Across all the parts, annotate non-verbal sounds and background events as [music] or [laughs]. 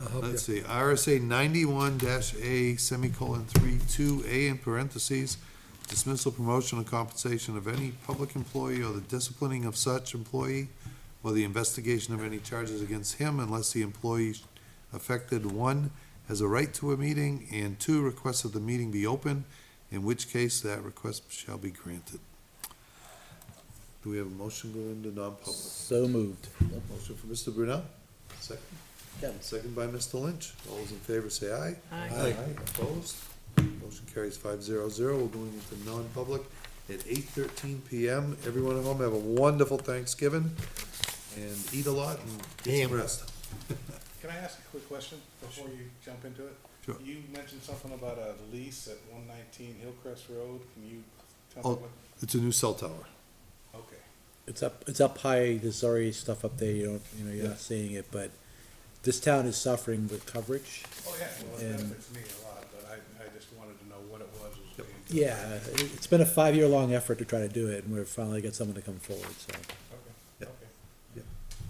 I'll help you. Let's see, RSA ninety-one dash A semicolon three two A in parentheses, dismissal, promotion, or compensation of any public employee or the disciplining of such employee or the investigation of any charges against him unless the employee affected, one, has a right to a meeting, and two, requests that the meeting be open, in which case that request shall be granted. Do we have a motion going into non-public? So moved. Motion for Mr. Brunel? Second? Kevin. Second by Mr. Lynch. All those in favor say aye. Aye. Opposed? Motion carries five zero zero. We're going into non-public at eight thirteen PM. Everyone at home, have a wonderful Thanksgiving and eat a lot and get some rest. Can I ask a quick question before you jump into it? Sure. You mentioned something about a lease at one nineteen Hillcrest Road, can you tell me Oh, what? it's a new cell tower. Okay, It's up, it's up high, there's already stuff up there, you don't, you know, you're not seeing it, but this town is suffering with coverage. oh, yeah, well, And- it benefits me a lot, but I, I just wanted to know what it was. as we- Yeah, it- it's been a five-year-long effort to try to do it, and we've finally got someone to come forward, so. Okay, Yeah. okay.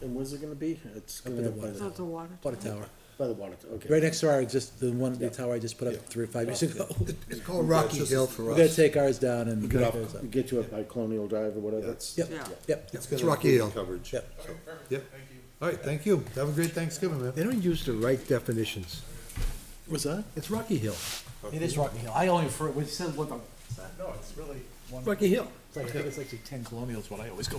And where's it gonna be? It's Up gonna in the be by water, the, That's a water. water tower, by the water, okay. right next to our, just, the one, the tower I just put up three or five years ago. [laughs] It's called Rocky Hill for We're gonna us. take ours down and. put Get those up. up- Get you up by Colonial Drive or whatever. That's- Yep, Yeah. yep. It's It's gonna Rocky improve Hill. Coverage. Yep. So, Yep. All right, thank you. Have a great Thanksgiving, man. They don't use the right definitions. What's that? It's Rocky Hill, It is Rocky Hill, I only refer, we said, what the. No, it's really Rocky Hill. It's like, I think it's actually ten colonials, what I always go